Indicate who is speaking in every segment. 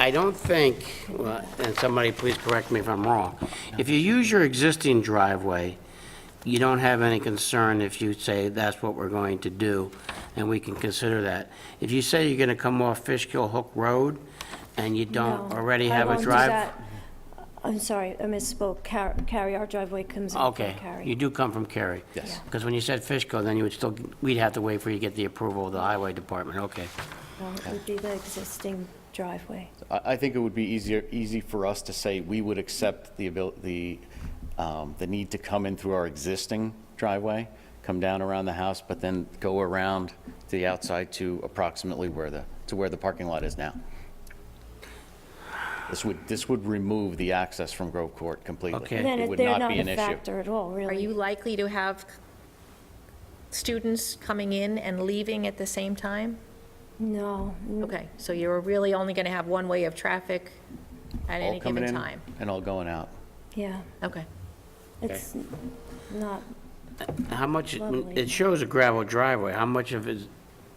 Speaker 1: I don't think, well, and somebody please correct me if I'm wrong, if you use your existing driveway, you don't have any concern if you say that's what we're going to do, and we can consider that. If you say you're going to come off Fishkill Hook Road, and you don't
Speaker 2: No,
Speaker 1: already
Speaker 2: I
Speaker 1: have a
Speaker 2: won't do
Speaker 1: drive...
Speaker 2: that. I'm sorry, I misspoke. Car- Carry, our driveway comes in from
Speaker 1: Okay,
Speaker 2: Carry.
Speaker 1: you do come from Cary?
Speaker 3: Yes.
Speaker 1: Because when you said Fishkill, then you would still, we'd have to wait for you to get the approval of the highway department, okay.
Speaker 2: No, It would be the existing driveway.
Speaker 3: I, I think it would be easier, easy for us to say we would accept the abil, the, um, the need to come in through our existing driveway, come down around the house, but then go around the outside to approximately where the, to where the parking lot is now. This would, this would remove the access from Grove Court completely.
Speaker 1: Okay.
Speaker 2: And
Speaker 1: Then
Speaker 3: It
Speaker 2: Then
Speaker 3: would
Speaker 2: they're
Speaker 3: not
Speaker 2: not
Speaker 3: be
Speaker 2: a
Speaker 3: an issue.
Speaker 2: factor at all,
Speaker 4: Are
Speaker 2: really.
Speaker 4: you likely to have students coming in and leaving at the same time?
Speaker 2: No. n-
Speaker 4: Okay, so you're really only going to have one way of traffic at
Speaker 3: All
Speaker 4: any
Speaker 3: coming
Speaker 4: given
Speaker 3: in
Speaker 4: time?
Speaker 3: And all going out.
Speaker 2: Yeah,
Speaker 4: Okay.
Speaker 2: it's n- not,
Speaker 1: How much,
Speaker 2: Lovely.
Speaker 1: it shows a gravel driveway, how much of it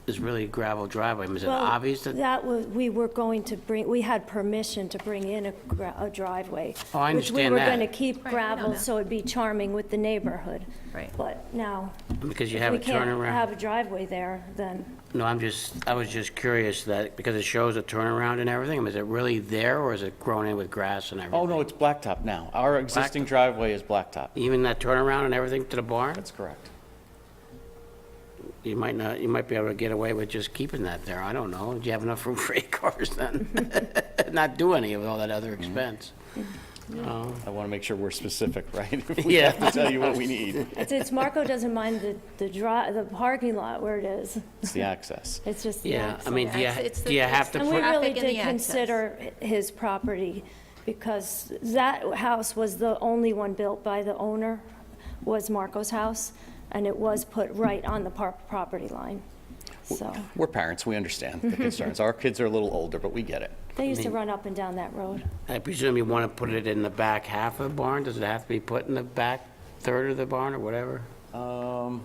Speaker 1: is really gravel driveway? Is it
Speaker 2: well,
Speaker 1: obvious that,
Speaker 2: that was, we were going to bring, we had permission to bring in a gra- a driveway.
Speaker 1: Oh, I
Speaker 2: Which we
Speaker 1: understand
Speaker 2: were
Speaker 1: that.
Speaker 2: going to keep
Speaker 4: Right, I know
Speaker 2: gravel,
Speaker 4: that.
Speaker 2: so it'd be charming with the neighborhood.
Speaker 4: Right.
Speaker 2: But now,
Speaker 1: because you
Speaker 2: if
Speaker 1: have
Speaker 2: we
Speaker 1: a
Speaker 2: can't have
Speaker 1: turnaround?
Speaker 2: a driveway there, then
Speaker 1: No, I'm just, I was just curious that, because it shows a turnaround and everything, I mean, is it really there, or is it grown in with grass and everything?
Speaker 3: Oh, no, it's blacktop now. Our existing driveway is blacktop.
Speaker 1: Even that turnaround and everything to the barn?
Speaker 3: That's correct.
Speaker 1: You might not, you might be able to get away with just keeping that there, I don't know. Do you have enough room for eight cars then? Not do any of all that other expense. Oh,
Speaker 3: I want to make sure we're specific, right? If we
Speaker 1: Yeah.
Speaker 3: have to tell you what we need,
Speaker 2: It's, it's Marco doesn't mind the, the dri, the parking lot where it is.
Speaker 3: it's the access.
Speaker 2: It's just. the
Speaker 1: Yeah, I
Speaker 2: access.
Speaker 1: mean, do you,
Speaker 4: It's- it's the-
Speaker 1: do you
Speaker 4: it's
Speaker 1: have to
Speaker 4: the
Speaker 2: And we
Speaker 1: put,
Speaker 4: traffic
Speaker 2: really
Speaker 4: and the
Speaker 2: did
Speaker 4: access.
Speaker 2: consider his property because that house was the only one built by the owner, was Marco's house, and it was put right on the par, property line. So,
Speaker 3: We're parents, we understand the concerns. Our kids are a little older, but we get it.
Speaker 2: they used to run up and down that road.
Speaker 1: I presume you want to put it in the back half of the barn? Does it have to be put in the back third of the barn or whatever?
Speaker 3: Um,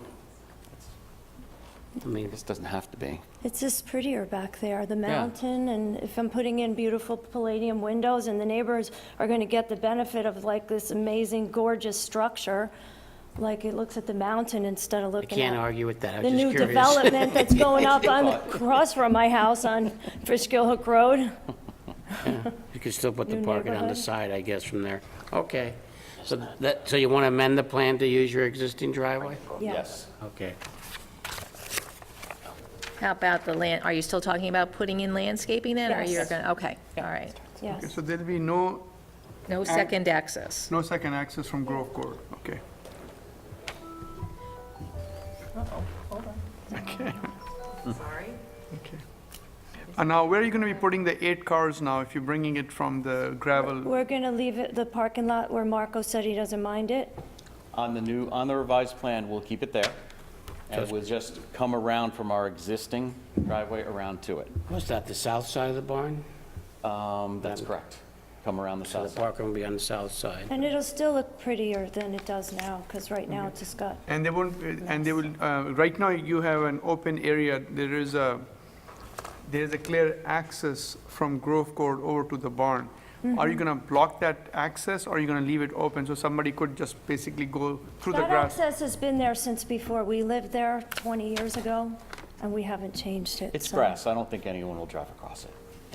Speaker 1: I mean,
Speaker 3: This doesn't have to be.
Speaker 2: It's just prettier back there, the mountain, and if I'm putting in beautiful palladium windows, and the neighbors are gonna get the benefit of like this amazing gorgeous structure, like it looks at the mountain instead of
Speaker 1: I
Speaker 2: looking
Speaker 1: can't
Speaker 2: at
Speaker 1: argue with that, I
Speaker 2: the
Speaker 1: was
Speaker 2: new
Speaker 1: just curious.
Speaker 2: development that's going up on, across from my house on Fishkill Hook Road.
Speaker 1: You could still put the
Speaker 2: New
Speaker 1: parking on the
Speaker 2: neighborhood.
Speaker 1: side, I guess, from there. Okay. So that, so you want to amend the plan to use your existing driveway?
Speaker 2: Yeah.
Speaker 1: Okay.
Speaker 4: How about the land, are you still talking about putting in landscaping then? Or you're
Speaker 2: Yes.
Speaker 4: going, to okay, all right.
Speaker 2: Yes.
Speaker 5: So there'll be no,
Speaker 4: No second access.
Speaker 5: no second access from Grove Court, okay.
Speaker 4: Sorry.
Speaker 5: Okay. And now, where are you gonna be putting the eight cars now, if you're bringing it from the gravel?
Speaker 2: We're gonna leave it, the parking lot where Marco said he doesn't mind it.
Speaker 3: On the new, on the revised plan, we'll keep it there. And it will just come around from our existing driveway around to it.
Speaker 1: Was that the south side of the barn?
Speaker 3: Um, That's correct. Come around the
Speaker 1: So
Speaker 3: south
Speaker 1: the
Speaker 3: side.
Speaker 1: parking will be on the south side.
Speaker 2: And it'll still look prettier than it does now, because right now it's just got
Speaker 5: And they won't, and they will, uh, right now, you have an open area, there is a, there is a clear access from Grove Court over to the barn. Are you gonna block that access, or are you gonna leave it open, so somebody could just basically go through the
Speaker 2: That
Speaker 5: grass?
Speaker 2: access has been there since before we lived there 20 years ago, and we haven't changed it.
Speaker 3: It's
Speaker 2: so-
Speaker 3: grass, I don't think anyone will drive across it.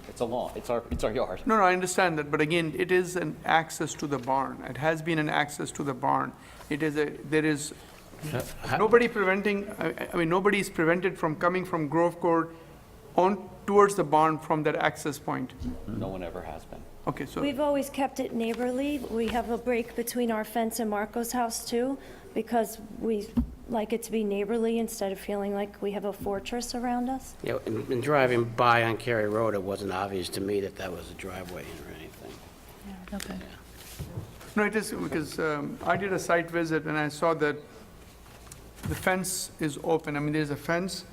Speaker 3: It's a lawn, it's our, it's our yard.
Speaker 5: No, no, I understand that, but again, it is an access to the barn, it has been an access to the barn. It is a, there is
Speaker 1: Uh,
Speaker 5: Nobody preventing, I I mean, nobody is prevented from coming from Grove Court on, towards the barn from that access point.
Speaker 3: No one ever has been.
Speaker 5: Okay, so,
Speaker 2: We've always kept it neighborly. We have a break between our fence and Marco's house, too, because we like it to be neighborly instead of feeling like we have a fortress around us.
Speaker 1: You know, in in driving by on Cary Road, it wasn't obvious to me that that was a driveway or anything.
Speaker 4: Okay.
Speaker 5: no, it is, because um, I did a site visit and I saw that the fence is open. I mean, there's a fence,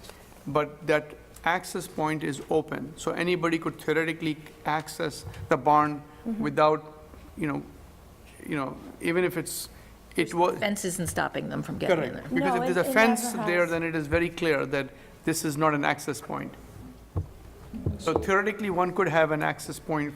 Speaker 5: but that access point is open. So anybody could theoretically access the barn
Speaker 2: Mm-hmm.
Speaker 5: without, you know, you know, even if it's, it was.
Speaker 4: Fence isn't stopping them from getting in there.
Speaker 5: Correct, because
Speaker 2: No,
Speaker 5: if
Speaker 2: it-
Speaker 5: there's a
Speaker 2: it
Speaker 5: fence
Speaker 2: never
Speaker 5: there,
Speaker 2: has.
Speaker 5: then it is very clear that this is not an access point. So theoretically, one could have an access point